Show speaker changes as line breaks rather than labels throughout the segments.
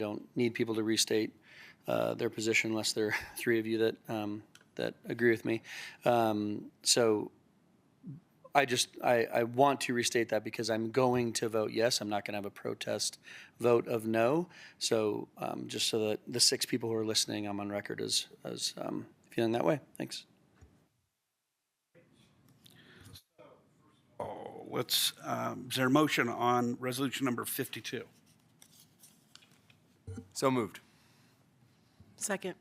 don't need people to restate uh, their position unless there are three of you that, um, that agree with me. Um, So I just, I, I want to restate that because I'm going to vote yes. I'm not going to have a protest vote of no. So um, just so that the six people who are listening, I'm on record as, as um, feeling that way. Thanks.
Oh, Let's, um, is there a motion on resolution number 52?
So moved.
Second.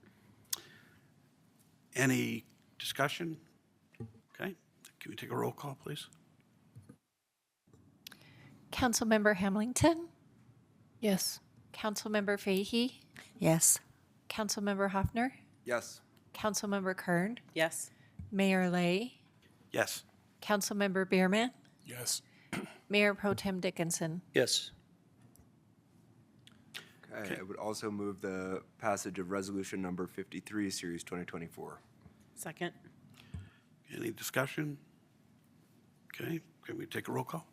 Any discussion? Okay, can we take a roll call, please?
Councilmember Hamilton,
Yes.
Councilmember Fahy,
Yes.
Councilmember Hoffner,
Yes.
Councilmember Kern,
Yes.
Mayor Lay,
Yes.
Councilmember Bierman,
Yes.
Mayor Pro Tem Dickinson.
Yes.
Okay, I would also move the passage of resolution number 53, series 2024.
Second.
Any discussion? Okay, can we take a roll call?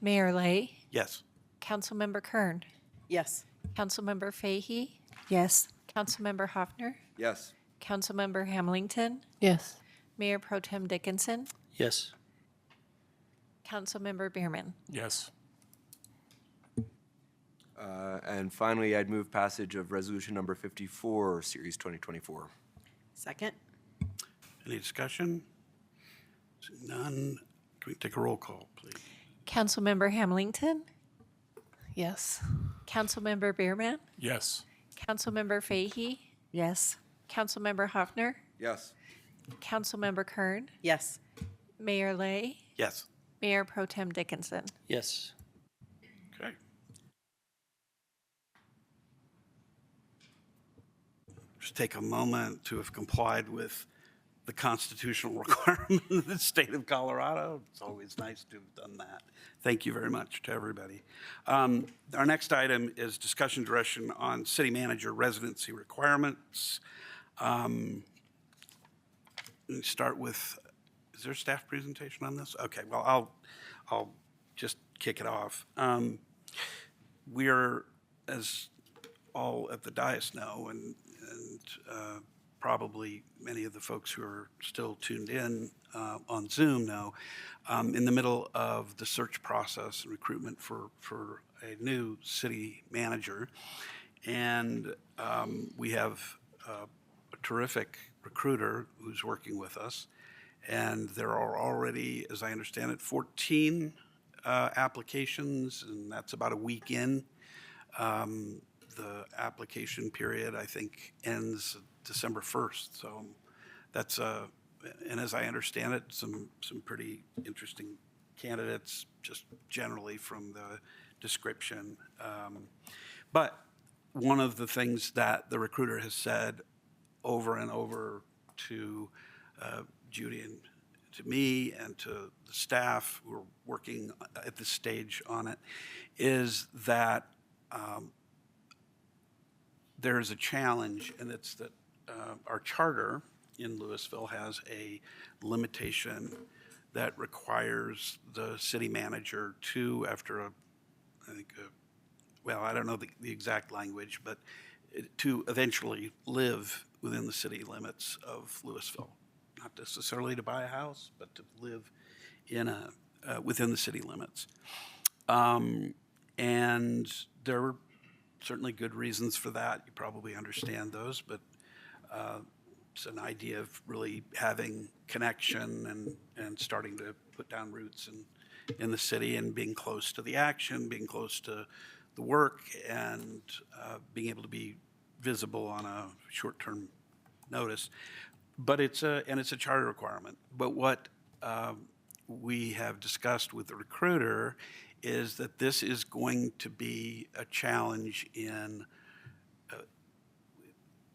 Mayor Lay,
Yes.
Councilmember Kern,
Yes.
Councilmember Fahy,
Yes.
Councilmember Hoffner,
Yes.
Councilmember Hamilton,
Yes.
Mayor Pro Tem Dickinson,
Yes.
Councilmember Bierman.
Yes.
Uh, And finally, I'd move passage of resolution number 54, series 2024.
Second.
Any discussion? Seeing None, can we take a roll call, please?
Councilmember Hamilton,
Yes.
Councilmember Bierman,
Yes.
Councilmember Fahy,
Yes.
Councilmember Hoffner,
Yes.
Councilmember Kern,
Yes.
Mayor Lay,
Yes.
Mayor Pro Tem Dickinson.
Yes.
Okay. Just take a moment to have complied with the constitutional requirement of the state of Colorado. It's always nice to have done that. Thank you very much to everybody. Um, Our next item is discussion direction on city manager residency requirements. We start with, is there a staff presentation on this? Okay, well, I'll, I'll just kick it off. Um, We are, as all at the dais know, and, and uh, probably many of the folks who are still tuned in uh, on Zoom know, um, in the middle of the search process and recruitment for, for a new city manager. And um, we have uh, a terrific recruiter who's working with us. And there are already, as I understand it, 14 uh, applications, and that's about a week in. Um, The application period, I think, ends December 1st, so that's, uh, and as I understand it, some, some pretty interesting candidates, just generally from the description. Um, But one of the things that the recruiter has said over and over to uh, Judy and to me and to the staff who are working at this stage on it is that um, there is a challenge, and it's that uh, our charter in Louisville has a limitation that requires the city manager to, after a, I think, a well, I don't know the, the exact language, but it- to eventually live within the city limits of Louisville. Not necessarily to buy a house, but to live in a, uh, within the city limits. Um, and there were certainly good reasons for that. You probably understand those, but uh, it's an idea of really having connection and, and starting to put down roots in, in the city and being close to the action, being close to the work, and uh, being able to be visible on a short-term notice. But it's a, and it's a charter requirement. But what um, we have discussed with the recruiter is that this is going to be a challenge in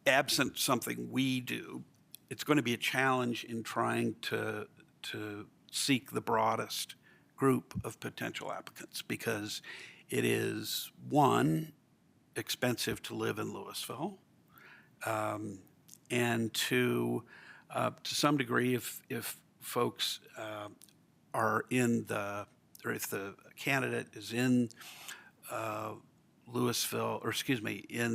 absent something we do, it's going to be a challenge in trying to, to seek the broadest group of potential applicants because it is, one, expensive to live in Louisville. Um, and two, uh, to some degree, if, if folks uh, are in the, or if the candidate is in uh, Louisville, or excuse me, in